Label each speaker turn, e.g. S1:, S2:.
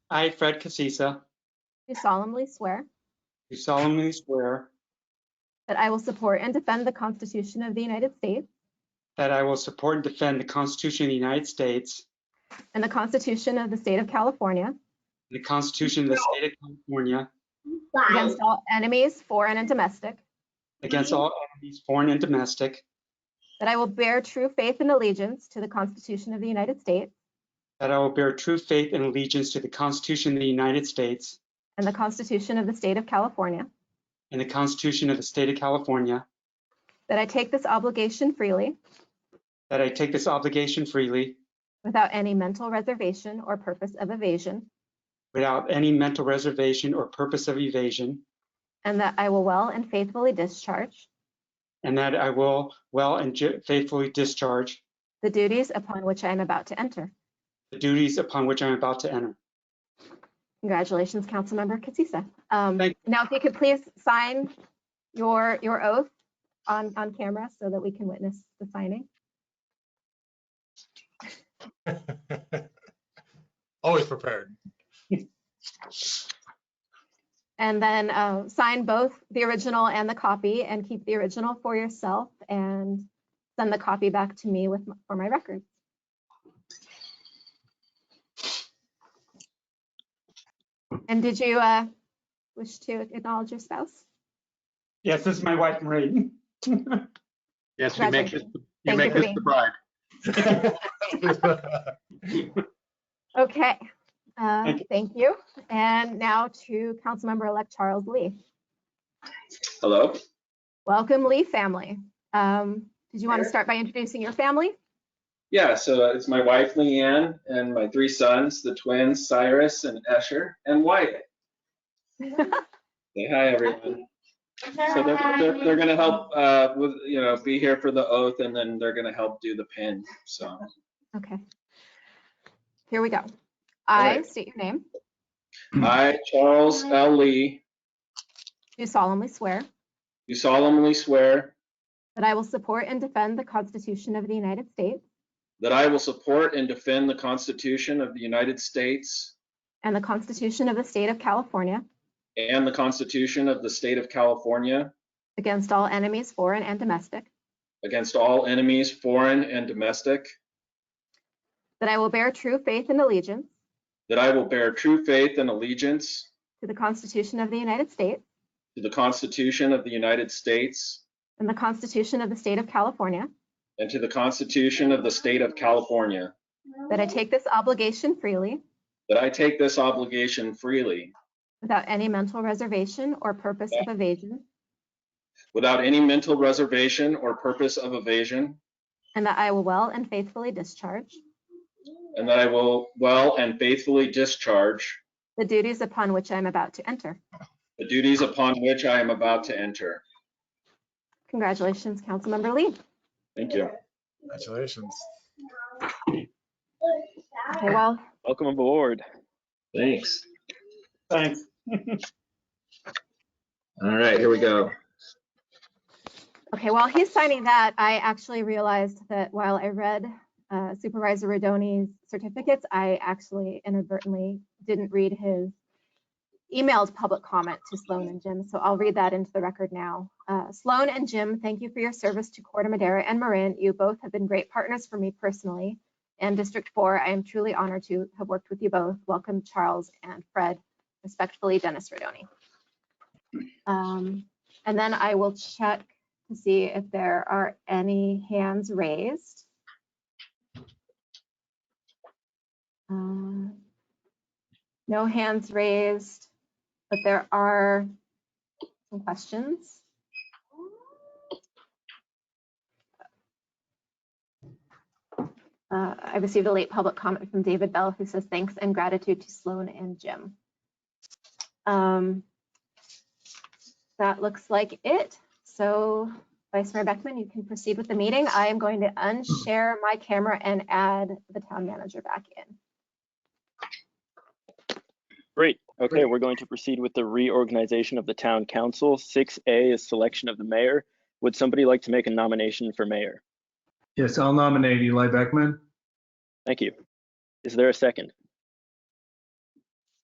S1: I, Fred Casisa,
S2: do solemnly swear
S1: do solemnly swear
S2: that I will support and defend the Constitution of the United States
S1: that I will support and defend the Constitution of the United States
S2: and the Constitution of the State of California
S1: and the Constitution of the State of California
S2: against all enemies, foreign and domestic,
S1: against all enemies, foreign and domestic,
S2: that I will bear true faith and allegiance to the Constitution of the United States
S1: that I will bear true faith and allegiance to the Constitution of the United States
S2: and the Constitution of the State of California,
S1: and the Constitution of the State of California,
S2: that I take this obligation freely
S1: that I take this obligation freely
S2: without any mental reservation or purpose of evasion,
S1: without any mental reservation or purpose of evasion,
S2: and that I will well and faithfully discharge
S1: and that I will well and ju- faithfully discharge
S2: the duties upon which I am about to enter.
S1: the duties upon which I am about to enter.
S2: Congratulations, Councilmember Katsisa. Um,
S1: Thank-
S2: Now, if you could please sign your, your oath on, on camera so that we can witness the signing.
S3: Always prepared.
S2: And then uh, sign both the original and the copy and keep the original for yourself and send the copy back to me with, for my records. And did you uh, wish to acknowledge your spouse?
S1: Yes, this is my wife, Marie.
S4: Yes, you make this, you
S2: Thank
S4: make
S2: you for
S4: this
S2: being-
S4: the bride.
S2: Okay, uh,
S1: Thank you.
S2: thank you. And now to Councilmember-elect Charles Lee.
S5: Hello,
S2: Welcome, Lee family. Um, Did you want to
S5: Sure.
S2: start by introducing your family?
S5: yeah, so it's my wife Leanne and my three sons, the twins Cyrus and Escher and Wyatt. Say hi, everyone. So they're, they're, they're gonna help, uh, with, you know, be here for the oath and then they're gonna help do the pin, so.
S2: Okay. Here we go. I
S5: right.
S2: state your name,
S5: I, Charles L. Lee,
S2: do solemnly swear
S5: do solemnly swear
S2: that I will support and defend the Constitution of the United States
S5: that I will support and defend the Constitution of the United States
S2: and the Constitution of the State of California
S5: and the Constitution of the State of California
S2: against all enemies, foreign and domestic,
S5: against all enemies, foreign and domestic,
S2: that I will bear true faith and allegiance
S5: that I will bear true faith and allegiance
S2: to the Constitution of the United States
S5: To the Constitution of the United States
S2: and the Constitution of the State of California,
S5: and to the Constitution of the State of California,
S2: that I take this obligation freely
S5: that I take this obligation freely,
S2: without any mental reservation or purpose of evasion,
S5: without any mental reservation or purpose of evasion,
S2: And that I will well and faithfully discharge
S5: and that I will well and faithfully discharge
S2: the duties upon which I am about to enter.
S5: the duties upon which I am about to enter.
S2: Congratulations, Councilmember Lee.
S5: Thank you.
S3: Congratulations.
S2: Okay, well,
S6: Welcome aboard.
S4: Thanks.
S1: Thanks.
S4: All right, here we go.
S2: okay, while he's signing that, I actually realized that while I read uh, Supervisor Rodoni's certificates, I actually inadvertently didn't read his emailed public comment to Sloan and Jim, so I'll read that into the record now. Uh, Sloan and Jim, thank you for your service to Corte Madera and Marin. You both have been great partners for me personally and District 4. I am truly honored to have worked with you both. Welcome, Charles and Fred. Respectfully, Dennis Rodoni. Um, And then I will check to see if there are any hands raised. Um, No hands raised, but there are some questions. Uh, I received a late public comment from David Bell who says thanks and gratitude to Sloan and Jim. Um, That looks like it. So Vice Mayor Beckman, you can proceed with the meeting. I am going to unshare my camera and add the town manager back in.
S6: Great. Okay, we're going to proceed with the reorganization of the town council. 6A is selection of the mayor. Would somebody like to make a nomination for mayor?
S7: Yes, I'll nominate Eli Beckman.
S6: Thank you. Is there a second?